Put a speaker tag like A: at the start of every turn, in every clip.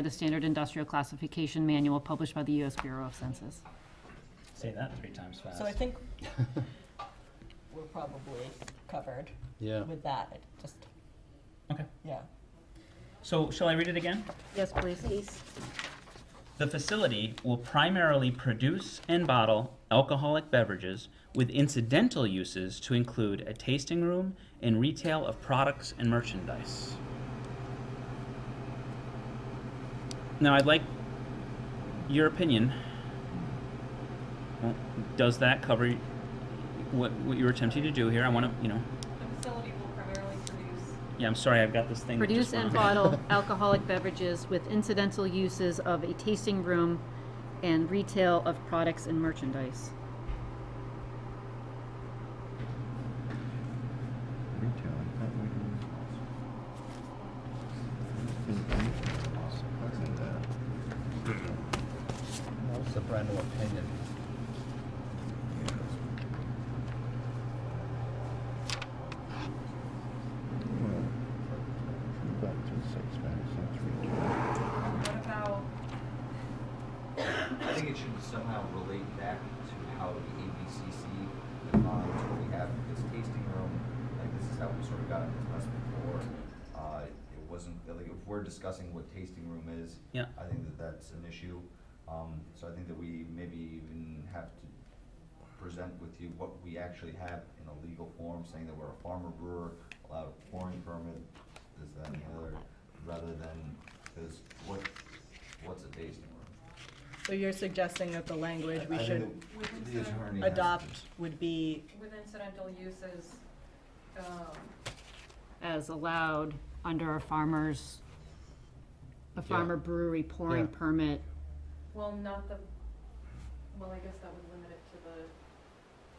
A: by the Standard Industrial Classification Manual published by the U.S. Bureau of Census.
B: Say that three times fast.
C: So I think we're probably covered
D: Yeah.
C: with that, it just,
B: Okay.
C: yeah.
B: So shall I read it again?
A: Yes, please.
B: The facility will primarily produce and bottle alcoholic beverages with incidental uses to include a tasting room and retail of products and merchandise. Now, I'd like your opinion. Well, Does that cover what, what you were attempting to do here? I want to, you know,
E: The facility will primarily produce
B: yeah, I'm sorry, I've got this thing. that
A: Produce
B: just
A: and
B: went on.
A: bottle alcoholic beverages with incidental uses of a tasting room and retail of products and merchandise.
F: Retail, I thought we were- Part of that.
D: What's the brand of opinion?
F: Well, we've got two six packs, that's retail.
E: What about,
G: I think it should somehow relate back to how the ABCC defines what we have in this tasting room. Like, this is how we sort of got into this before. Uh, it wasn't, like, if we're discussing what tasting room is,
B: Yeah.
G: I think that that's an issue. Um, so I think that we maybe even have to present with you what we actually have in a legal form, saying that we're a farmer brewer, allowed a pouring permit, this, that, and the other, rather than, because what, what's a tasting room?
C: So you're suggesting that the language we
G: I
C: should
G: think that
E: Within
G: the
E: certain-
G: attorney has to-
C: adopt would be,
E: with incidental uses, um,
A: As allowed under a farmer's, a farmer brewery pouring
D: Yeah.
A: permit.
E: well, not the, well, I guess that would limit it to the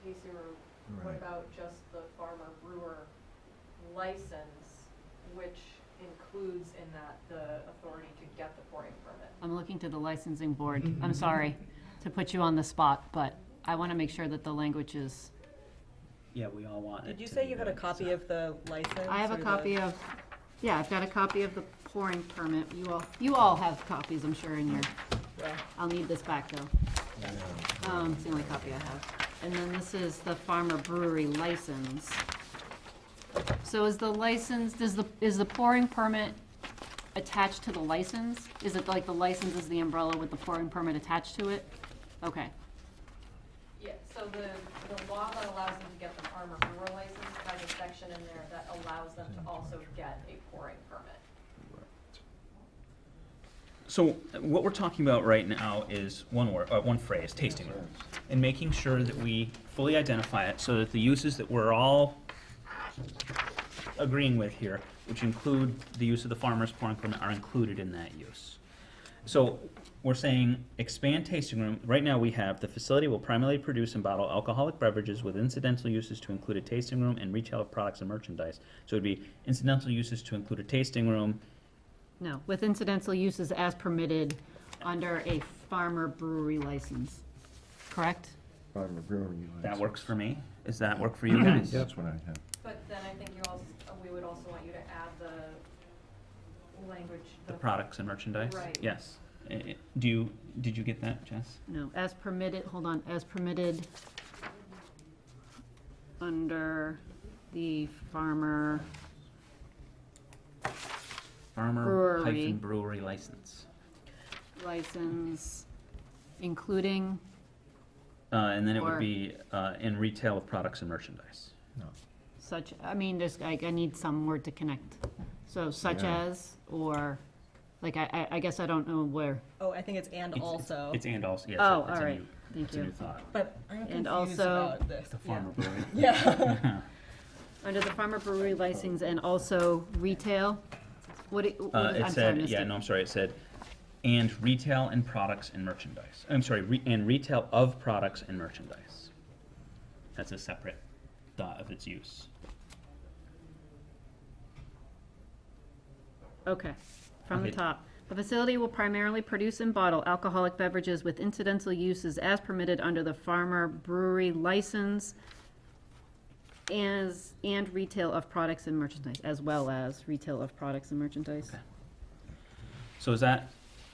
E: tasting room. What
G: Right.
E: about just the farmer brewer license, which includes in that the authority to get the pouring permit?
A: I'm looking to the licensing board. I'm sorry to put you on the spot, but I want to make sure that the language is.
B: Yeah, we all want it
C: did you
B: to
C: say
B: be
C: you had a
B: good,
C: copy
B: so-
C: of the license?
A: I have
C: or
A: a
C: the-
A: copy of, yeah, I've got a copy of the pouring permit. You all, you all have copies, I'm sure, in your,
C: Yeah.
A: I'll need this back, though. Um, it's the only copy I have. And then this is the farmer brewery license. So is the license, does the, is the pouring permit attached to the license? Is it like the license is the umbrella with the pouring permit attached to it? Okay,
E: Yeah, so the, the law that allows them to get the farmer brewer license has a section in there that allows them to also get a pouring permit.
B: So what we're talking about right now is one word, uh, one phrase, tasting room, and making sure that we fully identify it so that the uses that we're all agreeing with here, which include the use of the farmer's pouring permit, are included in that use. So we're saying expand tasting room. Right now we have the facility will primarily produce and bottle alcoholic beverages with incidental uses to include a tasting room and retail of products and merchandise. So it'd be incidental uses to include a tasting room,
A: no, with incidental uses as permitted under a farmer brewery license, correct?
F: Farmer brewery.
B: That
F: license.
B: works for me. Does that work for you guys?
F: That's what I have.
E: But then I think you also, we would also want you to add the language.
B: The products and merchandise?
E: Right.
B: Yes. Uh, uh, Do you, did you get that, Jess?
A: No, as permitted, hold on, as permitted under the farmer,
B: Farmer
A: Brewery.
B: hyphen brewery license.
A: license, including,
B: Uh, and then it
A: Or-
B: would be, uh, in retail of products and merchandise.
A: such, I mean, there's, I, I need some word to connect. So such
F: Yeah.
A: as, or, like, I, I, I guess I don't know where.
C: Oh, I think it's and
B: It's-
C: also,
B: It's and also, yes.
A: Oh,
B: it's a
A: all right.
B: new-
A: Thank
B: It's a
A: you.
B: new thought.
C: but I'm confused
A: also-
C: about this.
B: The
C: Yeah.
B: farmer brewery.
C: Yeah.
A: Under the farmer brewery license and also retail, what, it- what-
B: Uh, it
A: I'm sorry, I
B: said,
A: missed
B: yeah,
A: it.
B: no, I'm sorry, it said, and retail and products and merchandise. I'm sorry, re- and retail of products and merchandise. That's a separate thought of its use.
A: Okay, from the
B: Okay.
A: top. The facility will primarily produce and bottle alcoholic beverages with incidental uses as permitted under the farmer brewery license as, and retail of products and merchandise, as well as retail of products and merchandise.
B: So is that